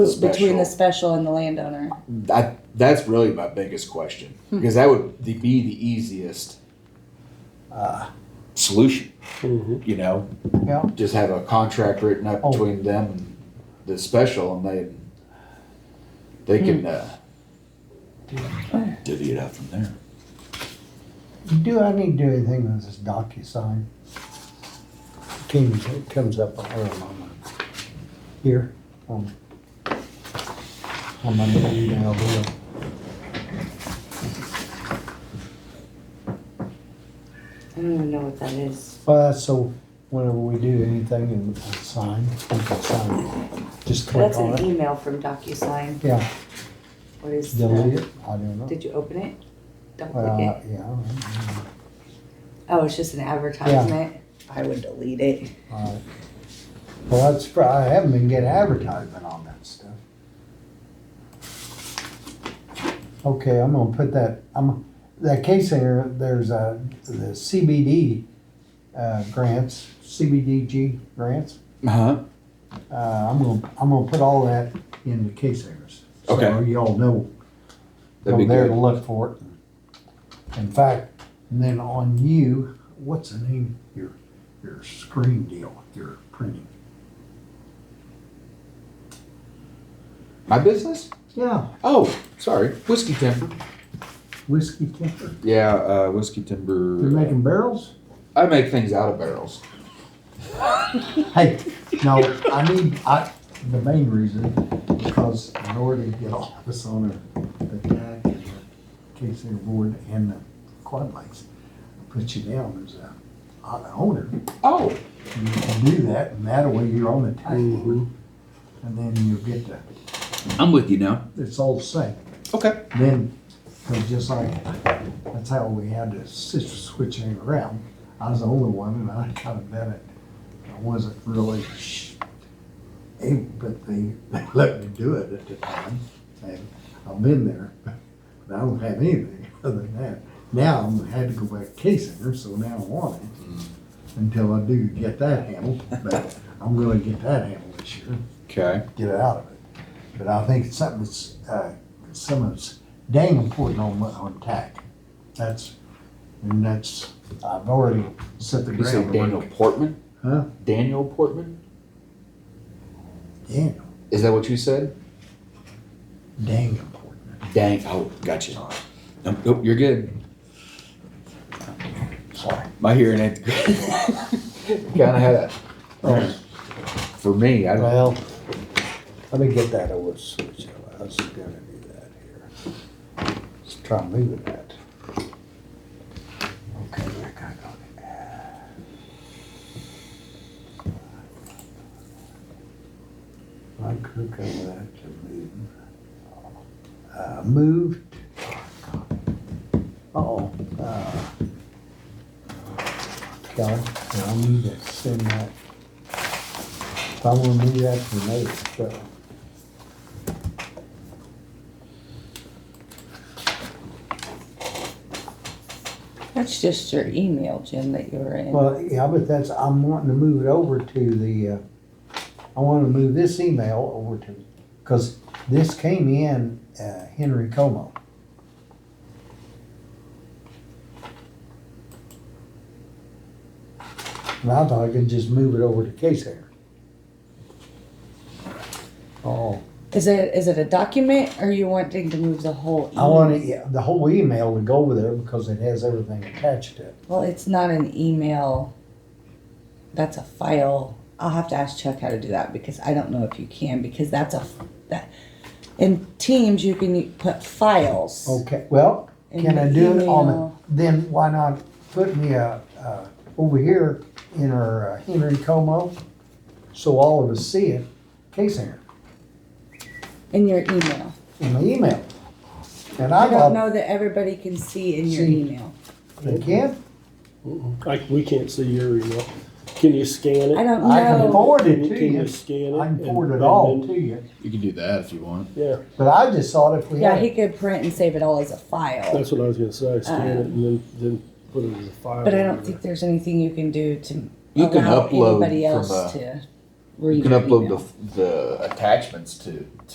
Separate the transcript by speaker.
Speaker 1: Who's between the
Speaker 2: Special.
Speaker 1: special and the landowner?
Speaker 2: I, that's really my biggest question
Speaker 3: Hmm.
Speaker 2: because that would the- be the easiest uh, solution. You know,
Speaker 3: Mm-hmm. Yeah.
Speaker 2: just have a contract written up
Speaker 3: Oh.
Speaker 2: between them and the special, and they they
Speaker 3: Hmm.
Speaker 2: can uh, divvy it out from there.
Speaker 3: Do I need to do anything with this DocuSign? Comes, comes up where I'm on my, here, on, on my new email bill.
Speaker 4: I don't even know what that is.
Speaker 3: Well, that's so whenever we do anything and we sign, we can sign, just click
Speaker 4: That's
Speaker 3: on
Speaker 4: an
Speaker 3: it.
Speaker 4: email from DocuSign.
Speaker 3: Yeah,
Speaker 4: What is
Speaker 3: delete
Speaker 4: that?
Speaker 3: it, Uh, I don't know.
Speaker 4: Did you open it? Don't
Speaker 3: Well,
Speaker 4: click it.
Speaker 3: yeah, all right,
Speaker 4: Oh, it's just an advertisement. I would delete it.
Speaker 3: all right. Uh, Well, that's, fr- I haven't been getting advertisement on that stuff. Okay, I'm gonna put that, I'm, that case there, there's a, the CBD, uh, grants, CBDG grants.
Speaker 2: Uh-huh.
Speaker 3: Uh, I'm gonna, I'm gonna put all that in the case areas. So
Speaker 2: Okay.
Speaker 3: y'all know,
Speaker 2: That'd
Speaker 3: go
Speaker 2: be
Speaker 3: there
Speaker 2: good.
Speaker 3: to look for it. In fact, and then on you, what's the name, your, your screen deal, your printing?
Speaker 2: My business?
Speaker 3: Yeah,
Speaker 2: Oh, sorry, whiskey timber.
Speaker 3: whiskey temper,
Speaker 2: Yeah, uh, whiskey
Speaker 3: you're
Speaker 2: timber.
Speaker 3: making barrels?
Speaker 2: I make things out of barrels.
Speaker 3: Hey, no, I need, I, the main reason, because in order to get all this on the, the tag and the case air board and the quad bikes, I put you down as a, an owner.
Speaker 2: Oh,
Speaker 3: You can do that, and that way you're on the tag board. And then you get the,
Speaker 2: I'm with you now.
Speaker 3: it's all the same.
Speaker 2: Okay.
Speaker 3: Then, it's just like, that's how we had to switch, switch it around. I was the only one, and I kind of meant it. I wasn't really, sh- able, but they, they let me do it at the time. And I've been there, but I don't have anything other than that. Now I'm had to go back to case center, so now I want it until I do get that handled. But I'm gonna get that handled this year
Speaker 2: Okay.
Speaker 3: get it out of it. But I think it's something that's, uh, something that's dang important on, on tack. That's, and that's, I've already set the
Speaker 2: You say Daniel
Speaker 3: groundwork.
Speaker 2: Portman?
Speaker 3: Huh?
Speaker 2: Daniel Portman?
Speaker 3: Daniel,
Speaker 2: Is that what you said?
Speaker 3: dang important.
Speaker 2: Dang. Oh, gotcha. Um, nope, you're good.
Speaker 3: Sorry.
Speaker 2: My hearing ain't good. kind of had a.
Speaker 3: Oh,
Speaker 2: For me, I don't.
Speaker 3: well, let me get that over switch. I was gonna do that here. Let's try moving that. Okay, Rick, I got it. I click on that to move. Uh, moved. Uh-oh. Uh, God, I need to send that. If I wanna move that to later, so.
Speaker 1: That's just your email, Jim, that you were in.
Speaker 3: Well, yeah, but that's, I'm wanting to move it over to the, uh, I wanna move this email over to, cause this came in, uh, Henry Como. And I thought I could just move it over to Case Air. Oh,
Speaker 1: Is it, is it a document or you wanting to move the whole?
Speaker 3: I
Speaker 1: email?
Speaker 3: wanna, yeah, the whole email to go over there because it has everything attached to it.
Speaker 1: Well, it's not an email. That's a file. I'll have to ask Chuck how to do that because I don't know if you can because that's a that in Teams you can put files.
Speaker 3: Okay, well,
Speaker 1: And
Speaker 3: can I
Speaker 1: the
Speaker 3: do it on,
Speaker 1: email.
Speaker 3: the- then why not put me, uh, uh, over here in our uh, Henry Como? So all of us see it, case here,
Speaker 1: In your email.
Speaker 3: in my email. And
Speaker 1: I
Speaker 3: I
Speaker 1: don't
Speaker 3: got,
Speaker 1: know that everybody can see in your
Speaker 3: See.
Speaker 1: email.
Speaker 3: again,
Speaker 5: Like, we can't see your email. Can you scan it?
Speaker 1: I don't know.
Speaker 3: I can forward it to
Speaker 5: Can
Speaker 3: you.
Speaker 5: you scan it?
Speaker 3: I can
Speaker 5: and-
Speaker 3: forward it
Speaker 5: and
Speaker 3: all
Speaker 5: then-
Speaker 3: to you,
Speaker 2: You can do that if you want.
Speaker 5: Yeah,
Speaker 3: but I just thought if we
Speaker 1: yeah,
Speaker 3: had,
Speaker 1: he
Speaker 3: it,
Speaker 1: could print and save it all as a file.
Speaker 5: that's what I was gonna say, scan it and then, then put it as a file.
Speaker 1: Uh, But I don't think there's anything you can do to
Speaker 2: You can
Speaker 1: allow
Speaker 2: upload
Speaker 1: anybody
Speaker 2: from
Speaker 1: else
Speaker 2: a-
Speaker 1: to read
Speaker 2: You can
Speaker 1: your
Speaker 2: upload
Speaker 1: email.
Speaker 2: the, the attachments to